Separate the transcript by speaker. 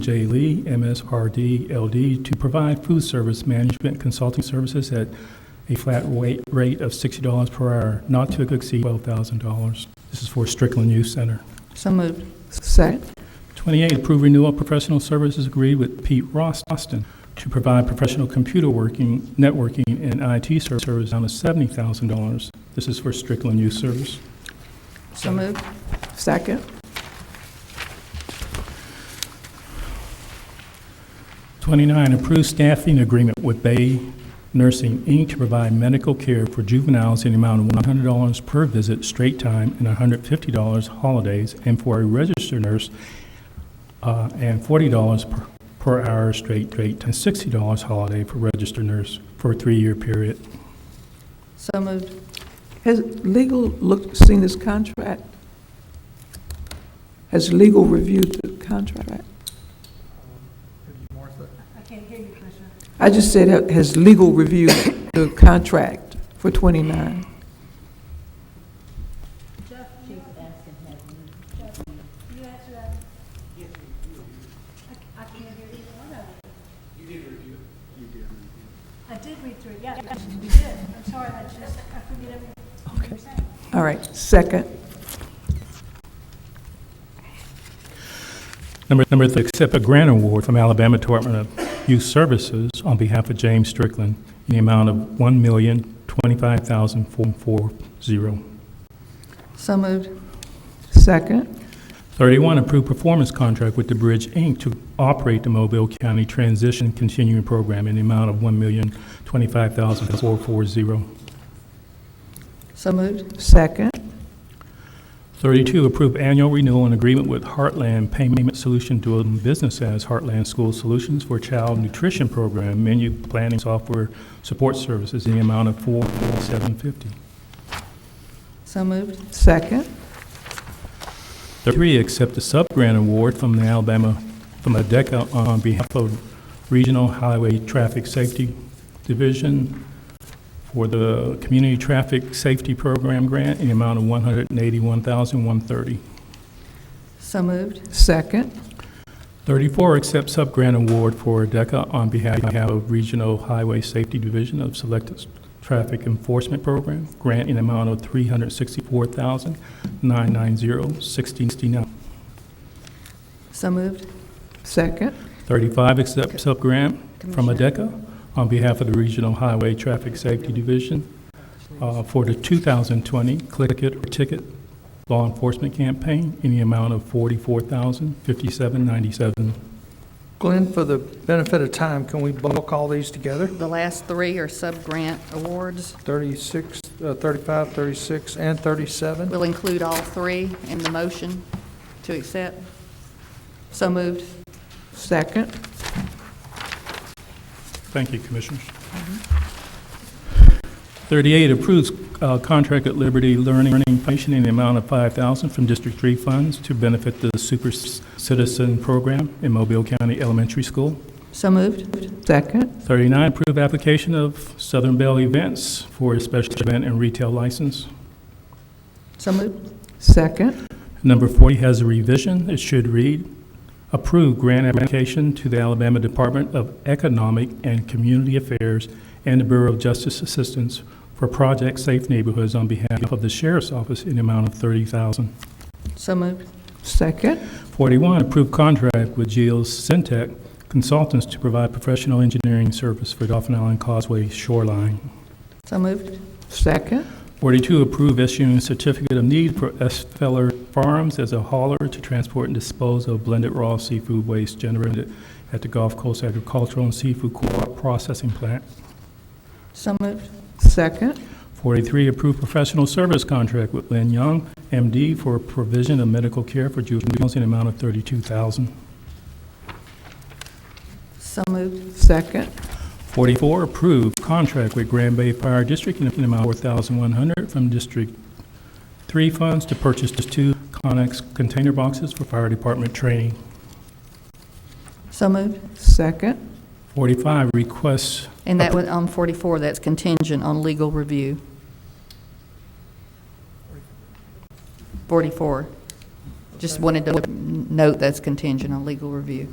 Speaker 1: J. Lee, MSRD, LD, to provide food service management consulting services at a flat rate rate of $60 per hour, not to exceed $12,000. This is for Strickland Youth Center.
Speaker 2: So moved.
Speaker 3: Second.
Speaker 1: 28, approve renewal of professional services agreed with Pete Ross Austin to provide professional computer working, networking, and IT ser- service down to $70,000. This is for Strickland Youth Service.
Speaker 2: So moved.
Speaker 3: Second.
Speaker 1: 29, approve staffing agreement with Bay Nursing, Inc. to provide medical care for juveniles in the amount of $100 per visit straight time and $150 holidays, and for a registered nurse, uh, and $40 per- per hour straight rate, and $60 holiday for registered nurse for a three-year period.
Speaker 2: So moved.
Speaker 3: Has legal looked, seen this contract? Has legal reviewed the contract? I just said, ha- has legal reviewed the contract for 29?
Speaker 4: uh, I did read through it, yeah, you did. I'm sorry, I just, I forget everything.
Speaker 3: All right, second.
Speaker 1: Number, number three, accept a grant award from Alabama Department of Youth Services on behalf of James Strickland in the amount of $1,025,440.
Speaker 2: So moved.
Speaker 3: Second.
Speaker 1: 31, approve performance contract with the Bridge, Inc. to operate the Mobile County Transition Continuing Program in the amount of $1,025,440.
Speaker 2: So moved.
Speaker 3: Second.
Speaker 1: 32, approve annual renewal and agreement with Heartland Payment Solution doing business as Heartland School Solutions for Child Nutrition Program, menu planning software support services in the amount of $4,750.
Speaker 2: So moved.
Speaker 3: Second.
Speaker 1: 33, accept a sub-grant award from the Alabama, from ADECA on behalf of Regional Highway Traffic Safety Division for the Community Traffic Safety Program Grant in the amount of $181,130.
Speaker 2: So moved.
Speaker 3: Second.
Speaker 1: 34, accept sub-grant award for ADECA on behalf of Regional Highway Safety Division of Selective Traffic Enforcement Program Grant in the amount of $364,990.69.
Speaker 2: So moved.
Speaker 3: Second.
Speaker 1: 35, accept sub-grant from
Speaker 2: Commissioner.
Speaker 1: ADECA on behalf of the Regional Highway Traffic Safety Division uh, for the 2020 Click It or Ticket Law Enforcement Campaign in the amount of $44,057.97.
Speaker 5: Glenn, for the benefit of time, can we bulk all these together?
Speaker 2: The last three are sub-grant awards.
Speaker 5: 36, uh, 35, 36, and 37?
Speaker 2: We'll include all three in the motion to accept. So moved.
Speaker 3: Second.
Speaker 1: Thank you, Commissioners. 38, approves uh, contract at Liberty Learning Learning Foundation in the amount of 5000 from District 3 funds to benefit the Super Citizen Program in Mobile County Elementary School.
Speaker 2: So moved.
Speaker 3: Second.
Speaker 1: 39, approve application of Southern Bell Events for a special event and retail license.
Speaker 2: So moved.
Speaker 3: Second.
Speaker 1: Number 40 has a revision. It should read, approve grant application to the Alabama Department of Economic and Community Affairs and the Bureau of Justice Assistance for Project Safe Neighborhoods on behalf of the Sheriff's Office in the amount of 30000
Speaker 2: So moved.
Speaker 3: Second.
Speaker 1: 41, approve contract with Geos Syntec Consultants to provide professional engineering service for Dauphin Island Causeway shoreline.
Speaker 2: So moved.
Speaker 3: Second.
Speaker 1: 42, approve issuing certificate of need for S. Feller Farms as a hauler to transport and dispose of blended raw seafood waste generated at the Gulf Coast Agricultural and Seafood Co-op Processing Plant.
Speaker 2: So moved.
Speaker 3: Second.
Speaker 1: 43, approve professional service contract with Lynn Young, M.D., for provision of medical care for juveniles in the amount of 32000
Speaker 2: So moved.
Speaker 3: Second.
Speaker 1: 44, approve contract with Grand Bay Fire District in the amount of 4100 from District 3 funds to purchase two Conex container boxes for fire department training.
Speaker 2: So moved.
Speaker 3: Second.
Speaker 1: 45, requests,
Speaker 2: And that was on 44, that's contingent on legal review. 44. Just wanted to note that's contingent on legal review.